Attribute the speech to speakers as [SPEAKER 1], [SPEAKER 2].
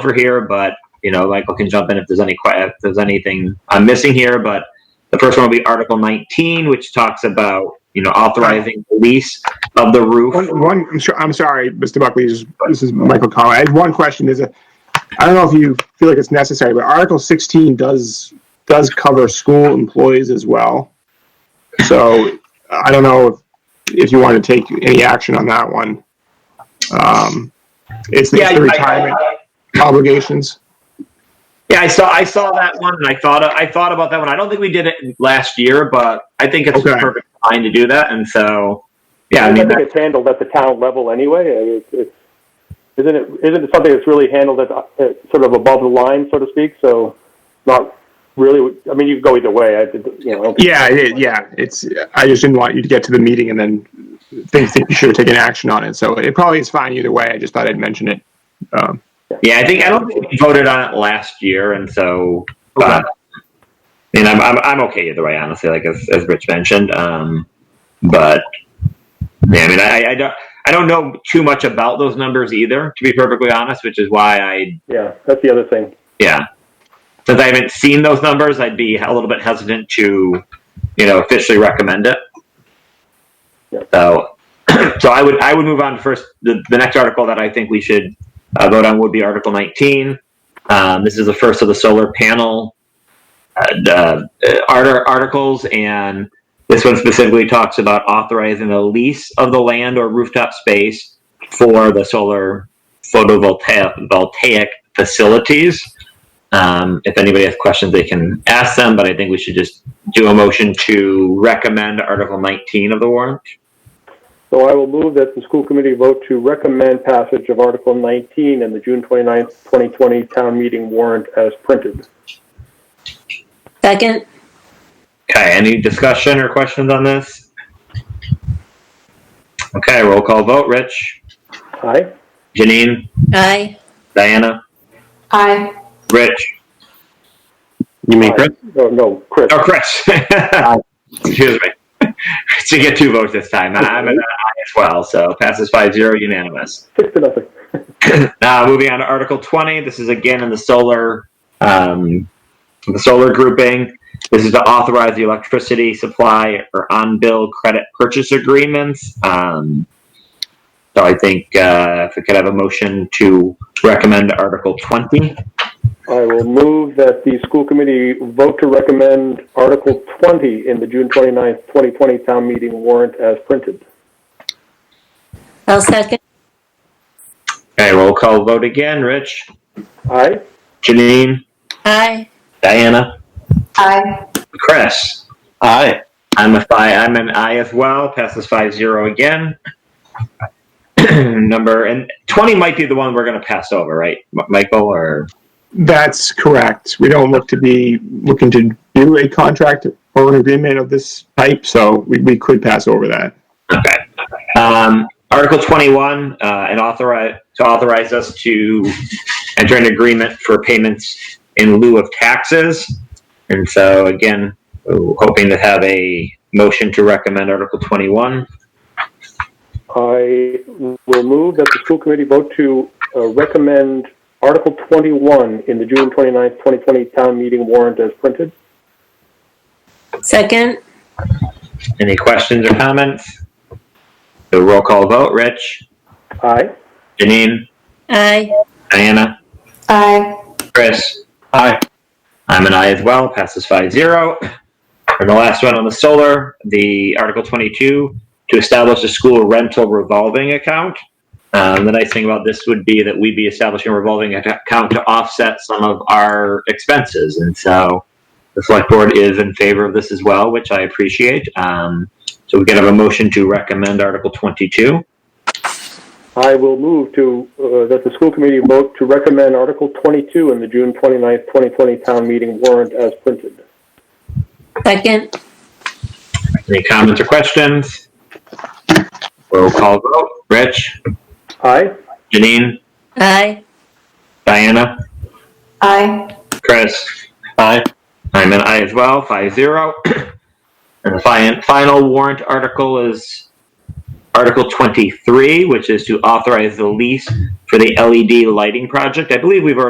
[SPEAKER 1] for here, but you know, Michael can jump in if there's any que- if there's anything I'm missing here. But the first one will be Article 19, which talks about you know authorizing the lease of the roof.
[SPEAKER 2] One, one, I'm sure, I'm sorry, Mr. Buckley, this is- this is Michael Collins. I had one question, is, a- I don't know if you feel like it's necessary, but Article sixteen does, does cover school employees as well. So I don't know if, if you want to take any action on that one. Um, it's the it's the retirement obligations.
[SPEAKER 1] Yeah, I saw I saw that one, and I thought I thought about that one. I don't think we did it last year, but I think it's
[SPEAKER 2] Okay.
[SPEAKER 1] a perfect time to do that. And so, yeah, I
[SPEAKER 3] I
[SPEAKER 1] mean,
[SPEAKER 3] think
[SPEAKER 1] that,
[SPEAKER 3] it's handled at the town level anyway. I mean, It's, it's, isn't it, isn't it something that's really handled at, at sort of above the line, so to speak? So not really, I mean, you could go either way. I did, you know, I don't think-
[SPEAKER 2] Yeah, it, is, yeah, it's, I just didn't want you to get to the meeting and then think that you should have taken action on it. So it probably is fine either way. I just thought I'd mention it. Um,
[SPEAKER 1] yeah, I think I don't think we voted on it last year, and so, but, and I'm, I'm I'm okay either way, honestly. Like as as Rich mentioned, um, but yeah, I mean, I, I don't I don't know too much about those numbers either, to be perfectly honest, which is why I
[SPEAKER 3] yeah, that's the other thing.
[SPEAKER 1] yeah. Since I haven't seen those numbers, I'd be a little bit hesitant to, you know, officially recommend it.
[SPEAKER 3] Yeah.
[SPEAKER 1] So, so I would I would move on to first. The, the next article that I think we should uh, vote on would be Article 19. Um, this is the first of the solar panel uh, uh, art- articles, and this one specifically talks about authorizing the lease of the land or rooftop space for the solar photovoltaic voltaic facilities. Um, if anybody has questions, they can ask them, but I think we should just do a motion to recommend Article 19 of the warrant.
[SPEAKER 3] So I will move that the school committee vote to recommend passage of Article 19 in the June 29th, 2020 town meeting warrant as printed.
[SPEAKER 4] Second,
[SPEAKER 1] Okay, any discussion or questions on this? Okay, roll call vote. Rich,
[SPEAKER 3] Aye?
[SPEAKER 1] Janine,
[SPEAKER 4] aye.
[SPEAKER 1] Diana,
[SPEAKER 4] Aye.
[SPEAKER 1] Rich. You mean Chris?
[SPEAKER 3] No, no, Chris.
[SPEAKER 1] Oh, Chris. Excuse me. So you get two votes this time. I'm an aye as well, so passes 5 0 unanimous.
[SPEAKER 3] Six to nothing.
[SPEAKER 1] Uh, moving on to Article 20. This is again in the solar, um, the solar grouping. This is to authorize the electricity supply or on-bill credit purchase agreements. Um, so I think uh, if we could have a motion to recommend Article 20.
[SPEAKER 3] I will move that the school committee vote to recommend Article 20 in the June 29th, 2020 town meeting warrant as printed.
[SPEAKER 4] I'll second,
[SPEAKER 1] Okay, roll call vote again. Rich,
[SPEAKER 3] Aye?
[SPEAKER 1] Janine,
[SPEAKER 4] aye.
[SPEAKER 1] Diana,
[SPEAKER 4] Aye.
[SPEAKER 1] Chris.
[SPEAKER 5] Aye.
[SPEAKER 1] I'm a five. I'm an I as well. Passes five zero again. Number and twenty might be the one we're going to pass over, right, M- Michael? Or
[SPEAKER 2] That's correct. We don't look to be looking to do a contract or an agreement of this type, so we, we could pass over that.
[SPEAKER 1] okay. Um, Article twenty-one uh, and authorize to authorize us to enter an agreement for payments in lieu of taxes. And so again, hoping to have a motion to recommend Article twenty-one.
[SPEAKER 3] I will move that the school committee vote to uh, recommend Article 21 in the June 29th, 2020 town meeting warrant as printed.
[SPEAKER 4] Second,
[SPEAKER 1] Any questions or comments? The roll call vote. Rich,
[SPEAKER 3] Aye?
[SPEAKER 1] Janine.
[SPEAKER 4] aye.
[SPEAKER 1] Diana?
[SPEAKER 4] Aye.
[SPEAKER 1] Chris?
[SPEAKER 5] Aye.
[SPEAKER 1] I'm an I as well, passes 5 0. And the last one on the solar, the Article 22, to establish a school rental revolving account. Um, the nice thing about this would be that we'd be establishing a revolving ac- account to offset some of our expenses. And so the select board is in favor of this as well, which I appreciate. Um, so we can have a motion to recommend Article 22.
[SPEAKER 3] I will move to, uh, that the school committee vote to recommend Article 22 in the June 29th, 2020 town meeting warrant as printed.
[SPEAKER 4] Second,
[SPEAKER 1] Any comments or questions? Roll call vote. Rich?
[SPEAKER 3] Aye?
[SPEAKER 1] Janine?
[SPEAKER 4] aye.
[SPEAKER 1] Diana,
[SPEAKER 4] Aye.
[SPEAKER 1] Chris,
[SPEAKER 5] Aye.
[SPEAKER 1] I'm an I as well, 5 0. And the fi- final warrant article is Article 23, which is to authorize the lease for the LED E lighting project. I believe we've already.